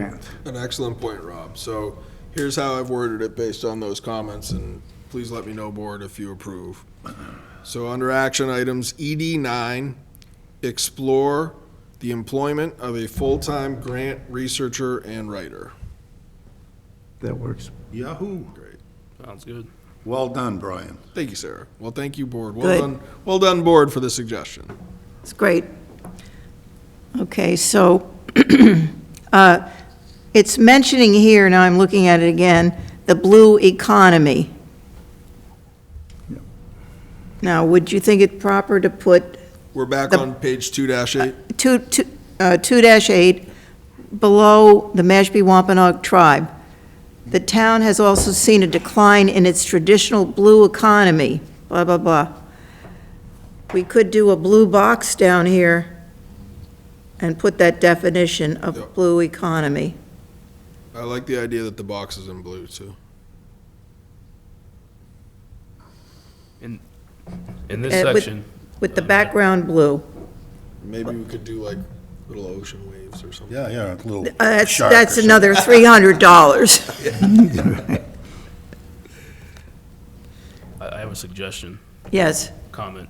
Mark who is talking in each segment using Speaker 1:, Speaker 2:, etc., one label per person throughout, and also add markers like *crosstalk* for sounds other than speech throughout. Speaker 1: grant.
Speaker 2: An excellent point, Rob. So here's how I've worded it based on those comments, and please let me know, board, if you approve. So under action items ED nine, explore the employment of a full-time grant researcher and writer.
Speaker 1: That works.
Speaker 3: Yahoo.
Speaker 2: Great.
Speaker 4: Sounds good.
Speaker 3: Well done, Brian.
Speaker 2: Thank you, Sarah. Well, thank you, board. Well
Speaker 5: Good.
Speaker 2: done, well done, board, for the suggestion.
Speaker 5: It's great. Okay, so *clears throat* uh, it's mentioning here, now I'm looking at it again, the blue economy.
Speaker 1: Yep.
Speaker 5: Now, would you think it proper to put
Speaker 2: We're back
Speaker 5: The-
Speaker 2: on page two dash eight.
Speaker 5: two two uh, 2-8 below the Mashpee Wampanoag tribe? The town has also seen a decline in its traditional blue economy, blah, blah, blah. We could do a blue box down here and put that definition
Speaker 2: Yeah.
Speaker 5: of blue economy.
Speaker 2: I like the idea that the box is in blue, too.
Speaker 4: In this
Speaker 5: Uh, with-
Speaker 4: section,
Speaker 5: With the background blue.
Speaker 2: Maybe we could do like little ocean waves or something.
Speaker 3: Yeah, yeah, a little
Speaker 5: Uh, That's,
Speaker 3: shark or
Speaker 5: that's
Speaker 3: something. *laughs*
Speaker 5: another $300.
Speaker 4: I I have a suggestion,
Speaker 5: Yes,
Speaker 4: comment.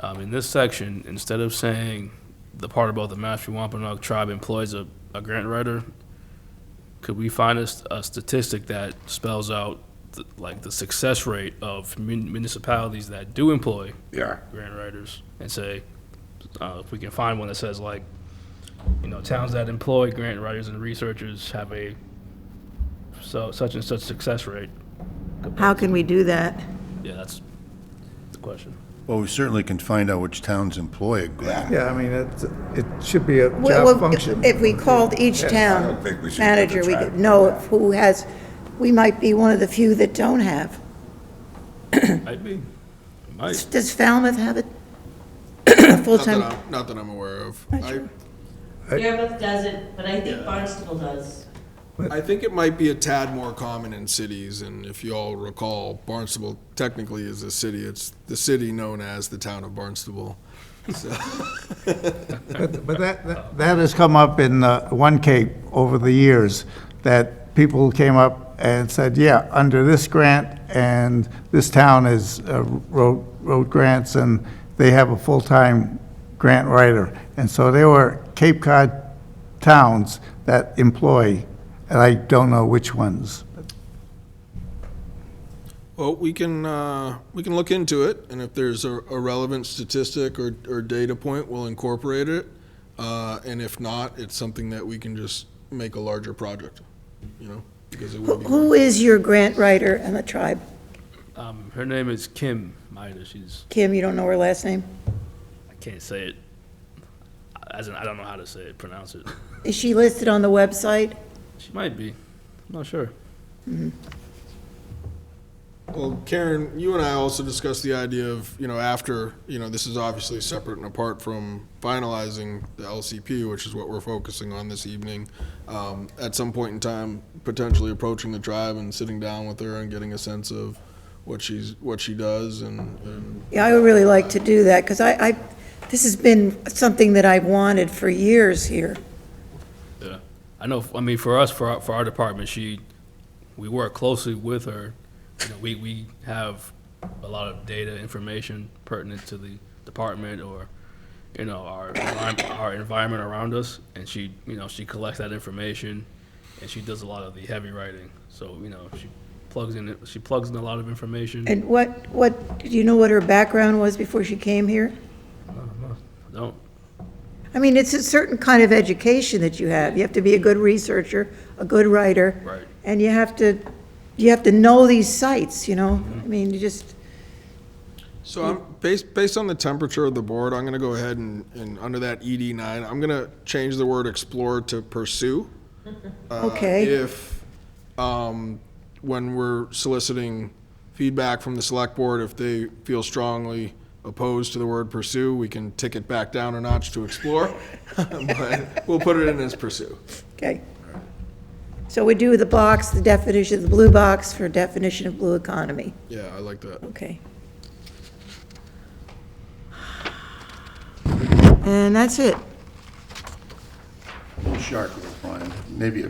Speaker 4: Um, in this section, instead of saying the part about the Mashpee Wampanoag tribe employs a, a grant writer, could we find a, s- a statistic that spells out the- like the success rate of mun- municipalities that do employ
Speaker 3: Yeah.
Speaker 4: grant writers and say, uh, if we can find one that says like, you know, towns that employ grant writers and researchers have a so such and such success rate.
Speaker 5: how can we do that?
Speaker 4: Yeah, that's the question.
Speaker 3: Well, we certainly can find out which towns employ a grant.
Speaker 1: Yeah, I mean, it, it should be a
Speaker 5: Well,
Speaker 1: job
Speaker 5: well,
Speaker 1: function.
Speaker 5: If we called each town manager, we could know if who has, we might be one of the few that don't have.
Speaker 4: Might be. Might.
Speaker 5: Does Falmouth have a a
Speaker 2: Not that
Speaker 5: *coughs* full-time?
Speaker 2: I'm, not that I'm aware of.
Speaker 5: Not
Speaker 2: I,
Speaker 5: sure.
Speaker 6: Yarmouth doesn't, but I think Barnstable does.
Speaker 2: I think it might be a tad more common in cities, and if you all recall, Barnstable technically is a city. It's the city known as the town of Barnstable. So,
Speaker 1: But but that, that- that has come up in uh, One Cape over the years, that people came up and said, yeah, under this grant, and this town is uh, wrote, wrote grants, and they have a full-time grant writer. And so they were Cape Cod towns that employ, and I don't know which ones.
Speaker 2: well, we can, uh, we can look into it, and if there's a, a relevant statistic or, or data point, we'll incorporate it. Uh, and if not, it's something that we can just make a larger project, you know, because it
Speaker 5: Who
Speaker 2: would be.
Speaker 5: who is your grant writer in the tribe?
Speaker 4: Um, her name is Kim Maida. She's
Speaker 5: Kim, you don't know her last name?
Speaker 4: I can't say it. As in, I don't know how to say it, pronounce it.
Speaker 5: Is she listed on the website?
Speaker 4: She might be. I'm not sure.
Speaker 2: Well, Karen, you and I also discussed the idea of, you know, after, you know, this is obviously separate and apart from finalizing the LCP, which is what we're focusing on this evening. Um, at some point in time, potentially approaching the tribe and sitting down with her and getting a sense of what she's, what she does and, and
Speaker 5: Yeah, I would really like to do that, because I, I, this has been something that I've wanted for years here.
Speaker 4: Yeah. I know. I mean, for us, for our, for our department, she, we work closely with her. You know, we we have a lot of data information pertinent to the department or, you know, our envi- our environment around us, and she, you know, she collects that information, and she does a lot of the heavy writing. So you know, she plugs in it. She plugs in a lot of information.
Speaker 5: And what, what, do you know what her background was before she came here?
Speaker 4: I don't.
Speaker 5: I mean, it's a certain kind of education that you have. You have to be a good researcher, a good writer.
Speaker 4: Right.
Speaker 5: And you have to, you have to know these sites, you know? I mean, you just,
Speaker 2: So I'm, based, based on the temperature of the board, I'm gonna go ahead and, and under that ED nine, I'm gonna change the word explore to pursue. Uh,
Speaker 5: Okay.
Speaker 2: If, um, when we're soliciting feedback from the select board, if they feel strongly opposed to the word pursue, we can tick it back down a notch to explore. *laughs* But we'll put it in as pursue.
Speaker 5: okay. So we do the box, the definition, the blue box for definition of blue economy.
Speaker 2: Yeah, I like that.
Speaker 5: Okay. And that's it.
Speaker 3: shark, will find, maybe a